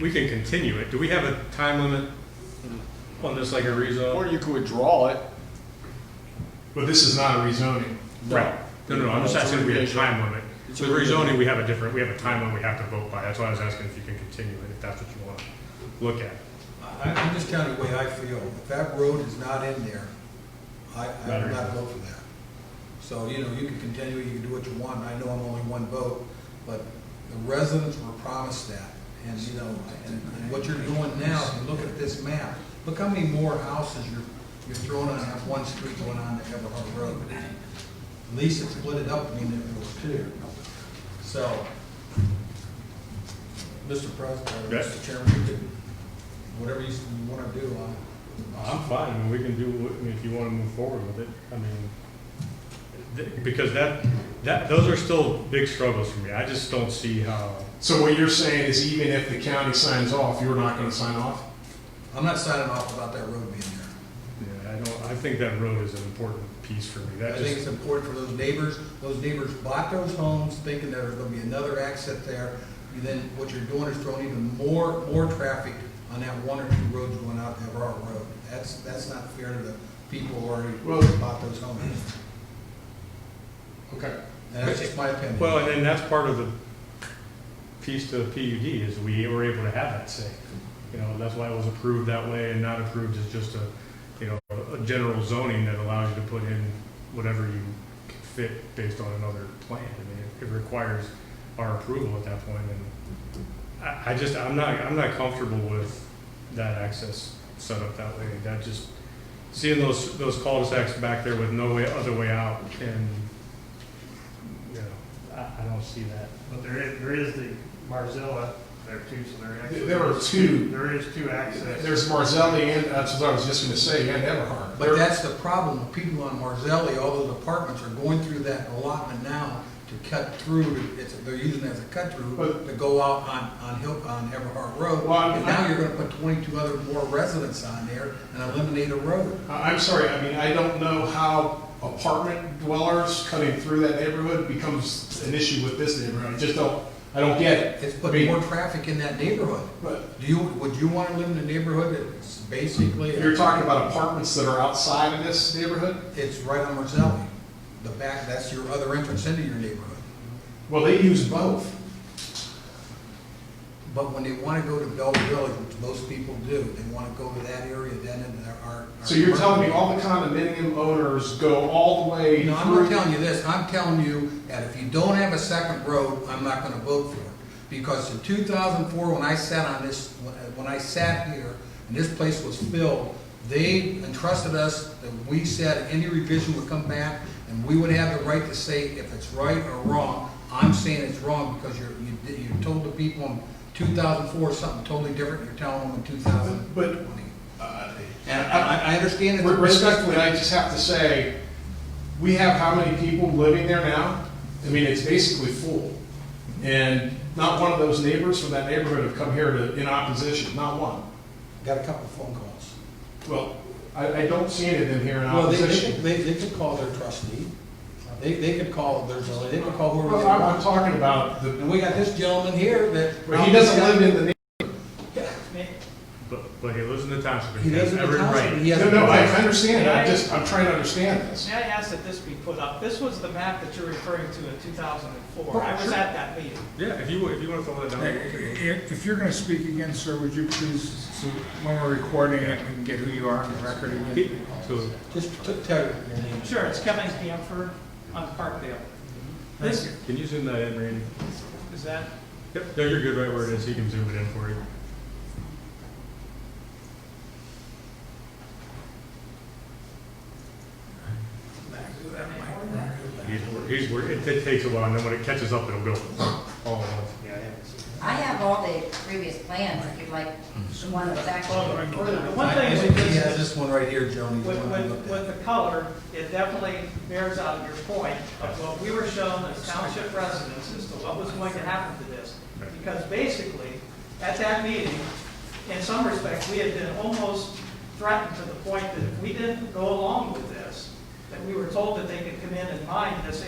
we can continue it. Do we have a time limit on this, like a Or rezone? you could withdraw it. But this is not a rezoning. Right. No, no, no, I'm just It's a asking if we have a revision. time limit. With It's a revision. rezoning, we have a different, we have a time limit we have to vote by. That's why I was asking if you can continue it, if that's what you want to look at. I- I'm just telling you the way I feel. If that road is not in there, I, I Better. would not vote for that. So, you know, you can continue, you can do what you want, I know I'm only one vote, but the residents were promised that. And, you know, and and what you're doing now, if you look at this map, look how many more houses you're, you're throwing on that one street going on to Everhart Road. At least it split it up, I mean, if it was two. So, Mr. President, or Yes. Mr. Chairman, you could whatever you want to do, I'm. Oh, I'm fine, I mean, we can do, what- I mean, if you want to move forward with it, I mean, th- because that, that, those are still big struggles for me. I just don't see how, So what you're saying is even if the county signs off, you're not gonna sign off? I'm not signing off about that road being there. yeah, I don't, I think that road is an important piece for me. I That think it's just, important for those neighbors, those neighbors bought those homes thinking there was going to be another exit there. And then what you're doing is throwing even more, more traffic on that one or two roads going out to Everard Road. That's, that's not fair to the people who already Well- bought those homes. Okay. And that's just my opinion. well, and then that's part of the piece to the PUD is we were able to have that say. You know, that's why it was approved that way and not approved as just a, you know, a general zoning that allows you to put in whatever you can fit based on another plan. I mean, it- it requires our approval at that point, and I, I just, I'm not, I'm not comfortable with that access set up that way. That just, seeing those, those cul-de-sacs back there with no way, other way out, and, you know, I, I don't see that. But there is, there is the Marzella there too, so there actually. There are two. There is two access. There's Marzelli and, uh, that's what I was just gonna say, and Everhart. But that's the problem, people on Marzelli, all those apartments are going through that allotment now to cut through, it's, they're using it as a cut through But- to go out on, on Hill, on Everhart Road. Well, I'm- And now you're gonna put twenty-two other more residents on there and eliminate a road. I- I'm sorry, I mean, I don't know how apartment dwellers cutting through that neighborhood becomes an issue with this neighborhood. I just don't, I don't get it. It's I putting mean, more traffic in that neighborhood. But Do you, would you wanna live in a neighborhood that's basically, you're talking about apartments that are outside of this neighborhood? it's right on Marzelli? The back, that's your other entrance into your neighborhood. Well, they use both. But when they want to go to Bell Village, which most people do, they want to go to that area, then and there are. So you're telling me all the condominium owners go all the way through? No, I'm not telling you this, I'm telling you that if you don't have a second road, I'm not gonna vote for it. Because in two thousand four, when I sat on this, when- when I sat here, and this place was filled, they entrusted us, that we said any revision would come back, and we would have the right to say if it's right or wrong. I'm saying it's wrong because you're, you, did- you told the people in two thousand four something totally different, you're telling them in two thousand But- twenty. Uh, And I, I- I understand it's a Re- business, Respectfully, I just have to say, we have how many people living there now? I mean, it's basically full. And not one of those neighbors from that neighborhood have come here to, in opposition, not one. got a couple of phone calls. Well, I, I don't see any of them here in Well, they, they, could- opposition. they they could call their trustee, they, they could call their, they could call whoever they Well, I'm, I'm want. talking about the, And we got this gentleman here that. but he doesn't live in the, neigh- But, but he lives in the township, He he has doesn't every right. he has. no, no, I understand, I just, I'm trying to understand this. May I ask that this be put up? This was the map that you're referring to in 2004. I was Sure. at that meeting. Yeah, if you, if you want to throw that down. If if you're going to speak again, sir, would you please, so when we're recording it, we can get who you are on the record He- again? So, Just t- tell your name. Sure, it's Kevin Camphor on Parkdale. This, can you zoom that in, Randy? is that, Yep, no, you're good right where it is, he can zoom it in for you. He's, he's, wor- it it takes a while, and then when it catches up, it'll go all at once. I have all the previous plans, if you'd like, the one that's actually. the one thing is, with He has this- this one right here, Joni, the with, one we with, looked at. with the color, it definitely bears out your point of what we were shown as township residents as to what was going to happen to this. Because basically, at that meeting, in some respects, we had been almost threatened to the point that if we didn't go along with this, that we were told that they could come in and mine this